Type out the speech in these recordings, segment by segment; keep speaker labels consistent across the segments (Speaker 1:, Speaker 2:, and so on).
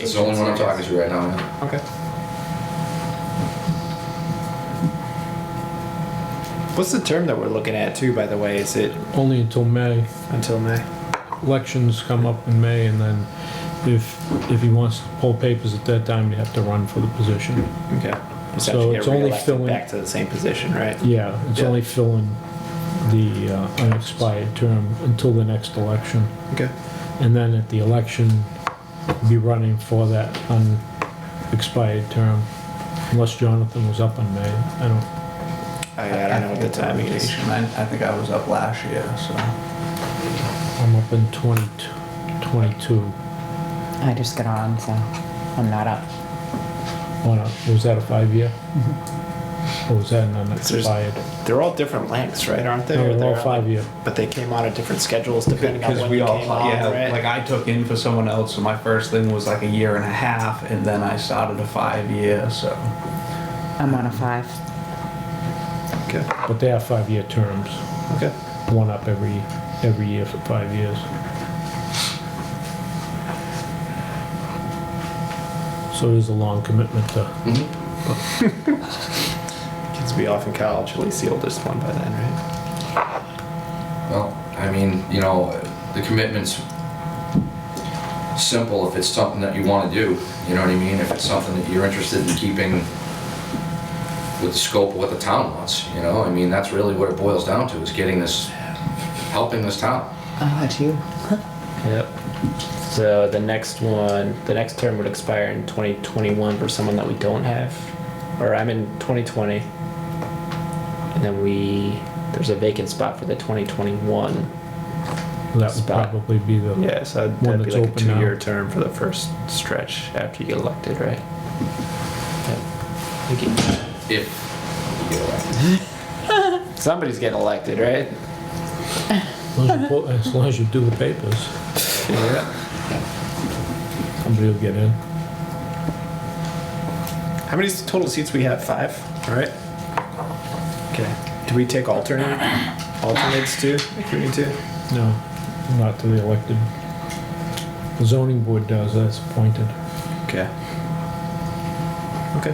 Speaker 1: It's the only one I'm talking to right now, man.
Speaker 2: Okay. What's the term that we're looking at too? By the way, is it
Speaker 3: Only until May.
Speaker 2: until May?
Speaker 3: Elections come up in May, and then if, if he wants to pull papers at that time, you have to run for the position.
Speaker 2: Okay. if you
Speaker 3: So it's
Speaker 2: get
Speaker 3: only
Speaker 2: reelected
Speaker 3: filling-
Speaker 2: back to the same position, right?
Speaker 3: Yeah, it's
Speaker 2: Yeah.
Speaker 3: only filling the uh, unexpired term until the next election.
Speaker 2: Okay.
Speaker 3: And then at the election, be running for that unexpired term, unless Jonathan was up in May. I don't,
Speaker 2: I, I don't know what the timing is.
Speaker 4: I, I think I was up last year, so.
Speaker 3: I'm up in 20 22.
Speaker 5: I just got on, so I'm not up.
Speaker 3: on a- Was that a five-year? Or was that an
Speaker 2: there's-
Speaker 3: unexpired?
Speaker 2: They're all different lengths, right? Aren't they?
Speaker 3: No,
Speaker 2: Or
Speaker 3: they're all
Speaker 2: they're-
Speaker 3: five-year.
Speaker 2: But they came out at different schedules depending on
Speaker 4: Because
Speaker 2: when
Speaker 4: we
Speaker 2: they
Speaker 4: all,
Speaker 2: came on,
Speaker 4: yeah,
Speaker 2: right?
Speaker 4: like I took in for someone else, so my first thing was like a year and a half, and then I started a five year, so.
Speaker 5: I'm on a five.
Speaker 2: okay.
Speaker 3: But they have five-year terms,
Speaker 2: Okay.
Speaker 3: one up every, every year for five years. So it is a long commitment to,
Speaker 2: Kids will be off in college. At least the oldest one by then, right?
Speaker 1: Well, I mean, you know, the commitment's simple if it's something that you want to do. You know what I mean? If it's something that you're interested in keeping with the scope of what the town wants, you know? I mean, that's really what it boils down to, is getting this, helping this town.
Speaker 5: Oh, it's you.
Speaker 6: Yep. So the next one, the next term would expire in 2021 for someone that we don't have, or I'm in 2020. And then we, there's a vacant spot for the 2021.
Speaker 3: that would
Speaker 6: Spot.
Speaker 3: probably be the.
Speaker 6: Yeah, so that'd,
Speaker 3: One
Speaker 6: that'd be
Speaker 3: that's
Speaker 6: like a
Speaker 3: open now.
Speaker 6: two-year term for the first stretch after you get elected, right? Yep. Thank you.
Speaker 1: If you get elected.
Speaker 6: Somebody's getting elected, right?
Speaker 3: As long as you pull- As long as you do the papers,
Speaker 6: Yeah.
Speaker 3: somebody will get in.
Speaker 2: How many total seats we have? Five. All right. Okay. Do we take alternate alternates too? If we need to.
Speaker 3: No, not to the elected. The zoning board does, that's appointed.
Speaker 2: Okay. Okay.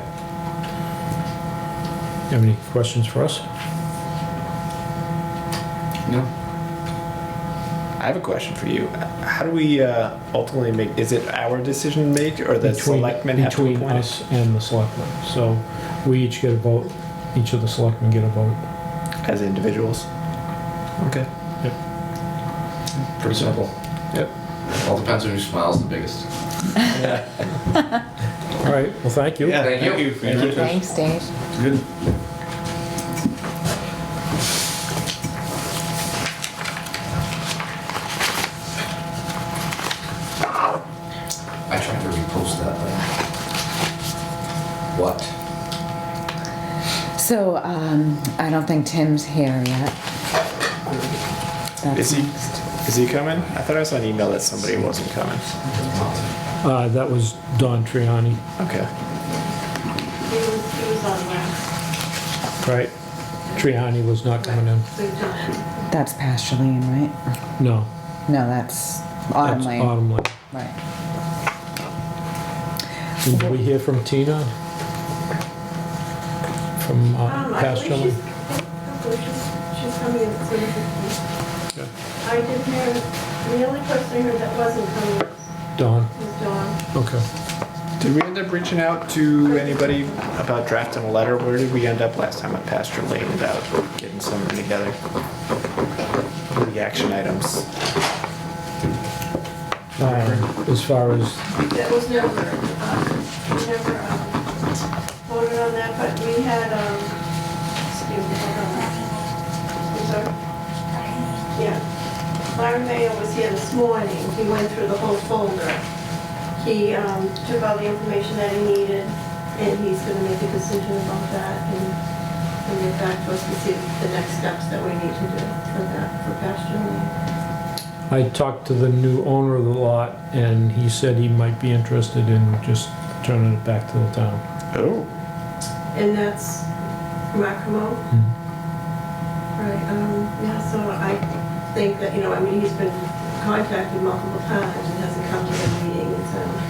Speaker 3: You have any questions for us?
Speaker 1: No,
Speaker 2: I have a question for you. How do we uh, ultimately make? Is it our decision to make, or the
Speaker 3: Between-
Speaker 2: selectmen have to
Speaker 3: Between
Speaker 2: appoint? it?
Speaker 3: us and the selectmen. So we each get a vote, each of the selectmen get a vote.
Speaker 2: as individuals. Okay.
Speaker 1: pretty simple.
Speaker 2: Yep.
Speaker 1: All depends on who smiles the biggest.
Speaker 3: All right, well, thank you.
Speaker 2: Yeah.
Speaker 1: Thank you.
Speaker 4: for your interest.
Speaker 5: Thanks, Dave.
Speaker 4: Good.
Speaker 1: I tried to repost that, but what?
Speaker 5: So, um, I don't think Tim's here yet. That's
Speaker 2: Is he?
Speaker 5: next.
Speaker 2: Is he coming? I thought I saw an email that somebody wasn't coming.
Speaker 3: Uh, That was Don Triani,
Speaker 2: Okay.
Speaker 7: He was, he was on last,
Speaker 3: right? Triani was not coming in.
Speaker 7: so he's not in.
Speaker 5: That's Pastureland, right?
Speaker 3: No.
Speaker 5: No, that's Autumn
Speaker 3: that's
Speaker 5: Lane.
Speaker 3: Autumn Lane.
Speaker 5: Right.
Speaker 3: And Did we hear from Tina? From uh,
Speaker 7: Um, I
Speaker 3: Pastor?
Speaker 7: believe she's, I believe she's, she's coming in soon. I didn't hear, the only person I heard that wasn't coming was-
Speaker 3: Don,
Speaker 7: was Dawn.
Speaker 3: okay.
Speaker 2: Did we end up reaching out to anybody about drafting a letter? Where did we end up last time at Pasture Lane about getting something together? What are The action items.
Speaker 3: Uh, As far as,
Speaker 7: That was never, um, we never, um, voted on that, but we had, um, excuse me, hold on. I'm sorry. Yeah. Larry Mayo was here this morning. He went through the whole folder. He, um, took all the information that he needed, and he's gonna make a decision about that and, and get back to us to see the next steps that we need to do for that, for pasture land.
Speaker 3: I talked to the new owner of the lot, and he said he might be interested in just turning it back to the town.
Speaker 2: Oh.
Speaker 7: And that's Macamo. Right, um, yeah, so I think that, you know, I mean, he's been contacted multiple times and hasn't come to the meeting, so.